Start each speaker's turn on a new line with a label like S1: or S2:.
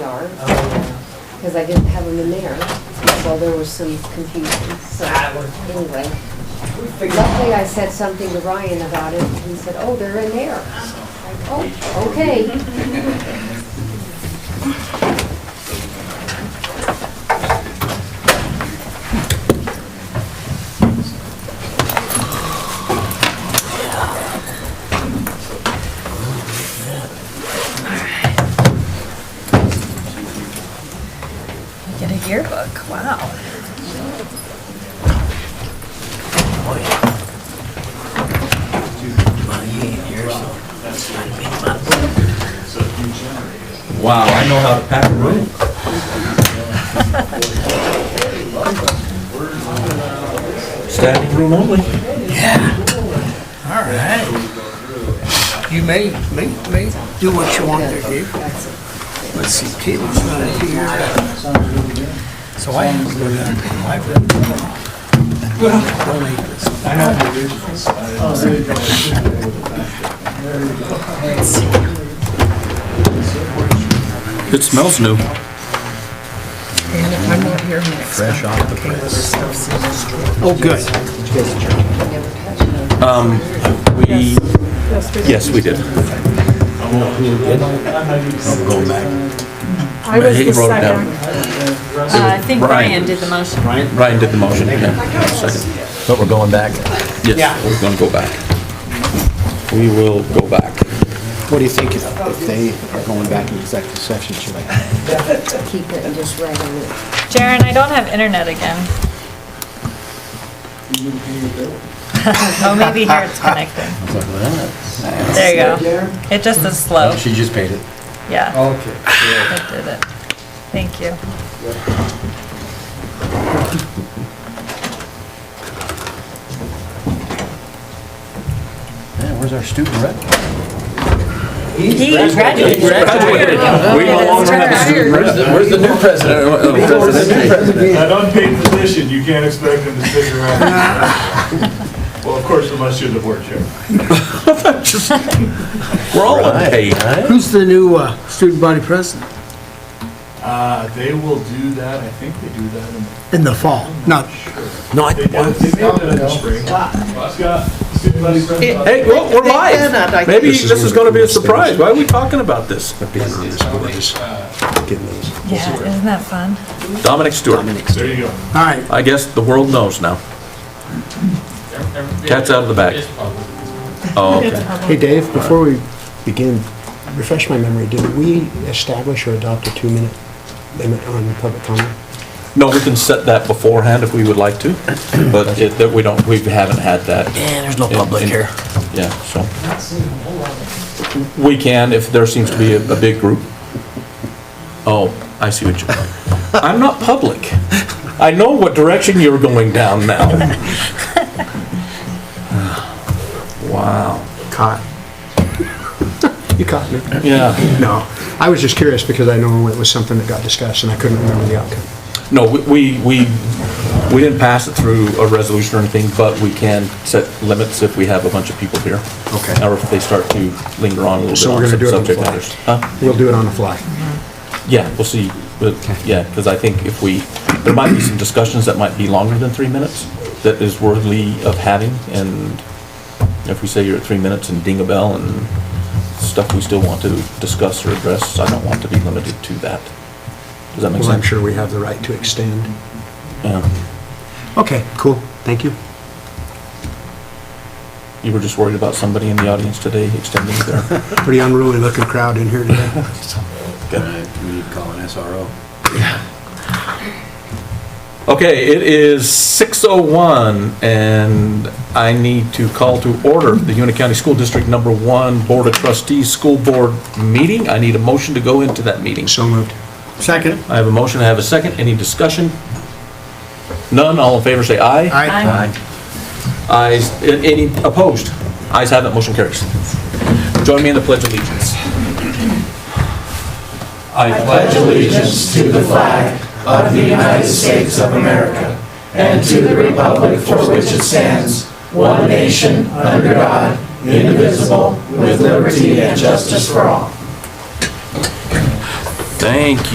S1: because um, I didn't have them in there, so there was some confusion, so anyway. Luckily, I said something to Ryan about it, and he said, oh, they're in there. So, like, Oh, okay.
S2: Get a yearbook, wow.
S3: Wow, I know how to pack a room. Standing room only.
S4: All right. You may, may, may do what you want to do. Let's see, Caleb's not here. So I have to go down to the library. Well, donate this.
S3: It smells new.
S2: And if I'm not here next. Fresh off the press.
S4: Oh, good.
S3: Um, We, yes, we did.
S5: I was
S3: He
S5: the
S3: wrote it down.
S5: second.
S2: Uh, I think
S3: Brian.
S2: Brian did the motion. Brian?
S3: Ryan did the motion, yeah, second.
S6: But we're going back.
S3: Yes, we're gonna go back. We will go back.
S6: What do you think if if they are going back in executive session, should I?
S1: Keep it and just write on it.
S2: Jaren, I don't have internet again. Oh, maybe here it's connecting. There you go. It just is slow,
S6: Oh, She just paid it.
S2: yeah. Okay. It did it. Thank you.
S6: Man, where's our student rep?
S2: He graduated.
S3: Graduated. We no longer have a student president. Where's the new president?
S7: An unpaid position, you can't expect them to stick around. Well, of course, unless you're the board chair.
S3: We're all unpaid.
S4: Who's the new uh, student body president?
S7: Uh, They will do that, I think they do that in,
S4: In the fall, not,
S3: No, I-
S7: they do they do that in the spring. Scott, student body president.
S3: Hey, well, we're live. Maybe this is gonna be a surprise. Why are we talking about this?
S2: Yeah, isn't that fun?
S3: Dominic Stewart.
S7: There you go.
S4: all right.
S3: I guess the world knows now. Cat's out of the bag. Oh, okay.
S8: Hey, Dave, before we begin, refresh my memory, did we establish or adopt a two-minute limit on public comment?
S3: No, we can set that beforehand if we would like to, but it, that we don't, we haven't had that.
S6: Yeah, there's no
S3: in- in- Yeah, so. We can if there seems to be a, a big group. Oh, I see what you're, I'm not public. I know what direction you're going down now. Wow.
S8: Caught. You caught me.
S3: Yeah.
S8: No, I was just curious because I know it was something that got discussed and I couldn't remember the outcome.
S3: No, we, we, we we didn't pass it through a resolution or anything, but we can set limits if we have a bunch of people here.
S8: Okay.
S3: Or if they start to linger on a little bit.
S8: So we're
S3: on
S8: gonna
S3: some
S8: do it on the
S3: subject
S8: fly.
S3: matters. Huh?
S8: We'll do it on the fly.
S3: Yeah, we'll see, but, yeah, because I think if we, there might be some discussions that might be longer than three minutes that is worthy of having, and if we say you're at three minutes and ding a bell and stuff we still want to discuss or address, I don't want to be limited to that. Does that make sense?
S8: Well, I'm sure we have the right to extend.
S3: Yeah.
S8: Okay, cool. Thank you.
S3: You were just worried about somebody in the audience today extending their,
S8: Pretty unruly looking crowd in here today.
S6: We need to call an SRO.
S3: okay, it is 6:01, and I need to call to order the Union County School District Number One Board of Trustees School Board meeting. I need a motion to go into that meeting.
S8: So moved.
S4: Second?
S3: I have a motion, I have a second, any discussion? None, all in favor, say aye.
S4: Aye.
S3: Ayes, a- any opposed? Ayes have it, motion carries. Join me in the Pledge of Allegiance. I pledge allegiance to the flag of the United States of America and to the republic for which it stands, one nation, under God, indivisible, with liberty and justice for all. Thank you.